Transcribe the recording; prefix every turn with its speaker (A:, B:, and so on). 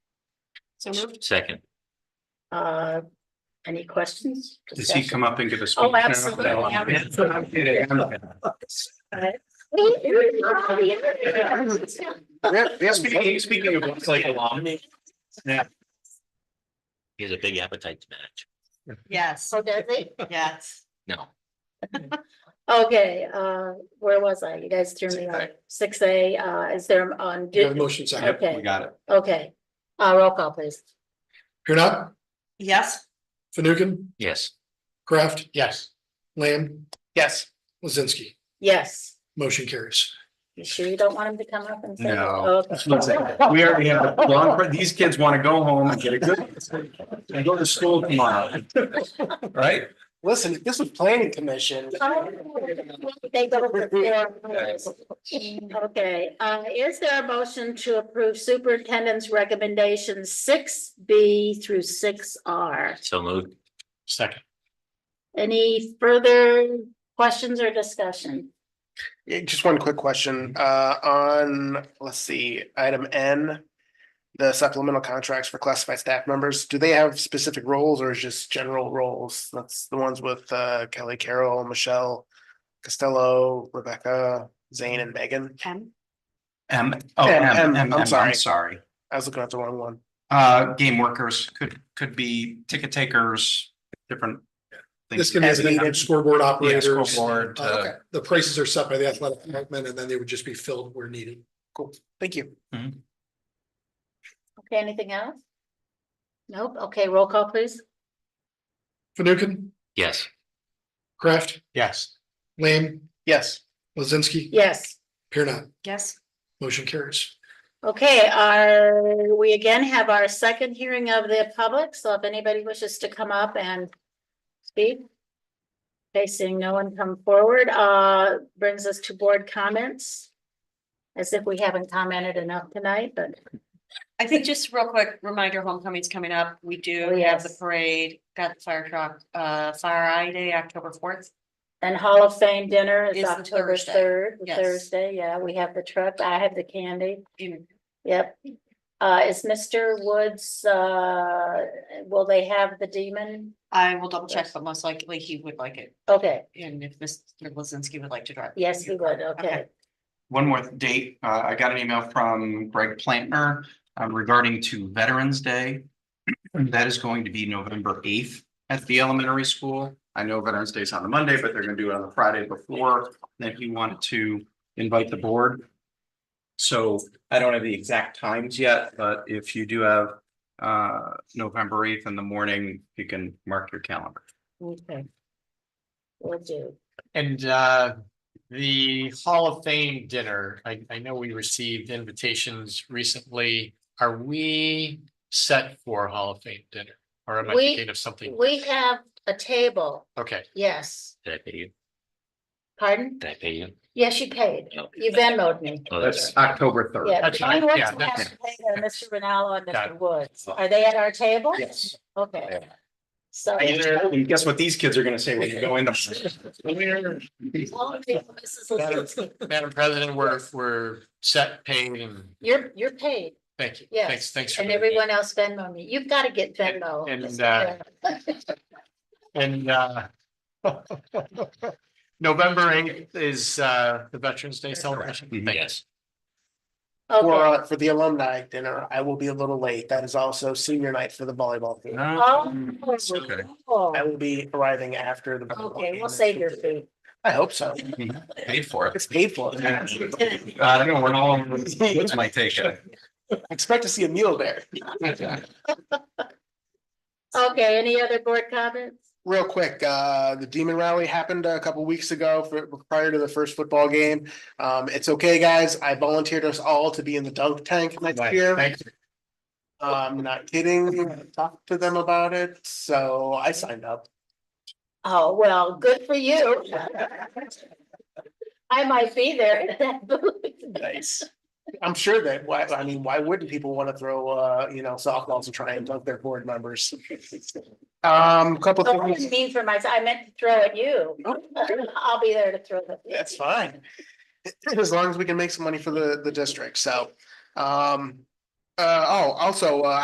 A: So moved.
B: Second,
A: Uh, any questions?
C: Does he come up and give a speech?
A: Oh,
C: now?
A: absolutely.
C: No, I'm- I'm kidding. I'm- Speaking, speaking of what's like alum. Yeah,
B: he has a big appetite to match.
D: Yes,
A: So does he?
D: yes.
B: No,
A: Okay, uh, where was I? You guys threw me off. Six A, uh, is there on?
E: You have a motion second.
C: yep, we
A: Okay,
C: got it.
A: okay. Uh, roll call please.
E: Here not,
D: Yes,
E: Fanukin,
B: yes,
E: Kraft,
C: Yes.
E: Lamb,
C: Yes.
E: Lizinski,
A: Yes.
E: motion carries.
A: You sure you don't want him to come up and say? that?
C: No.
A: Okay.
C: We already have, a long. these kids want to go home and get a good, and go to school tomorrow. Right?
F: Listen, if this was planning commission.
A: They go for their rules. Okay, uh, is there a motion to approve superintendent's recommendations six B through six R?
B: so moved,
C: Second.
A: Any further questions or discussion?
F: Yeah, Just one quick question, uh, on, let's see, item N. The supplemental contracts for classified staff members, do they have specific roles or is just general roles? That's the ones with, uh, Kelly Carroll, Michelle. Costello, Rebecca, Zane and Megan.
D: M,
C: M, oh,
F: M, M,
C: M,
F: I'm
C: M, M, I'm
F: sorry.
C: sorry.
F: I was looking at the wrong one.
C: Uh, game workers could, could be ticket takers, different. things.
E: This can be
F: As
E: a
F: needed.
E: scoreboard
C: Yeah,
E: operators.
C: scoreboard,
E: Uh,
C: uh,
E: okay. The prices are set by the athletic department and then they would just be filled where needed.
F: Thank you.
A: Okay, anything else? Nope, okay, roll call please.
E: Fanukin,
B: yes,
E: Kraft,
C: Yes.
E: Lamb,
F: Yes.
E: Lizinski,
A: Yes,
E: here not,
D: yes,
E: motion carries.
A: okay, our, we again have our second hearing of the public, so if anybody wishes to come up and speak. Okay, seeing no one come forward, uh, brings us to board comments. As if we haven't commented enough tonight, but
D: I think just real quick reminder, homecoming's coming up. We
A: Oh,
D: do have the
A: yes.
D: parade, got the fire truck, uh, fire eye day, October fourth.
A: And Hall of Fame dinner is
D: Is the
A: October
D: Thursday.
A: third,
D: Yes.
A: Thursday, yeah, we have the truck, I have the candy,
D: In,
A: yep. Uh, is Mr. Woods, uh, will they have the demon?
D: I will double check, but most likely he would like it.
A: Okay,
D: And if Mr. Lizinski would like to drive.
A: yes, he would, okay,
C: One more date, uh, I got an email from Greg Plantner um, regarding to Veterans Day. That is going to be November eighth at the elementary school. I know Veterans Day is on the Monday, but they're gonna do it on the Friday before. And If you want to invite the board. So I don't have the exact times yet, but if you do have uh, November eighth in the morning, you can mark your calendar.
A: okay. Will do,
G: And uh, the Hall of Fame dinner, I, I know we received invitations recently. Are we set for Hall of Fame dinner? Or am I
A: We-
G: thinking of something?
A: we have a table,
G: Okay,
A: yes,
B: did I pay you?
A: pardon?
B: Did I pay you?
A: Yes, you paid,
B: No.
A: you Venmoed me,
B: Oh,
C: That's
B: that's,
C: October third.
A: yeah.
G: That's
A: John
G: fine,
A: Woods
G: yeah,
A: will
G: that's
A: have to pay there, Mr. Ronaldo and
G: Got
A: Mr. Woods, are they at our table?
F: Yes.
A: Okay. So.
C: And guess what these kids are gonna say when you go in the.
A: All of you, Mrs.
G: Madam-
A: Lisinski,
G: Madam President, we're, we're set, paid and
A: You're, you're paid
G: thank you.
A: Yes,
G: Thanks, thanks. for
A: and
G: doing that.
A: everyone else Venmo me. You've got to get Venmo.
G: And- and,
A: Mrs.
G: uh,
A: Taylor.
G: And uh, November eighth is uh, the Veterans Day celebration.
C: Mhm.
G: Thank you.
B: yes,
F: For,
A: Okay,
F: uh, for the alumni dinner, I will be a little late. That is also senior night for the volleyball team.
A: Oh.
C: okay.
A: cool.
F: I will be arriving after the. volleyball
A: Okay,
F: game.
A: we'll save your food.
F: I hope so.
C: Paid for it.
F: It's painful.
C: I don't know, we're all, what's my take? on it?
F: Expect to see a meal there.
A: Okay, any other board comments?
F: Real quick, uh, the demon rally happened a couple weeks ago for, prior to the first football game. Um, it's okay, guys. I volunteered us all to be in the dunk tank next
G: Right,
F: year.
G: Thank you.
F: I'm not kidding. Talked to them about it, so I signed up.
A: Oh, well, good for you. I might be there at that booth.
F: Nice. I'm sure that, why, I mean, why wouldn't people want to throw, uh, you know, softballs and try and dunk their board members? Um, couple
A: Oh, I
F: things. Oh,
A: didn't mean for myself. I meant to throw at you. I'll be there to throw. at you.
F: That's fine. As long as we can make some money for the, the district, so, um, uh, oh, also, uh,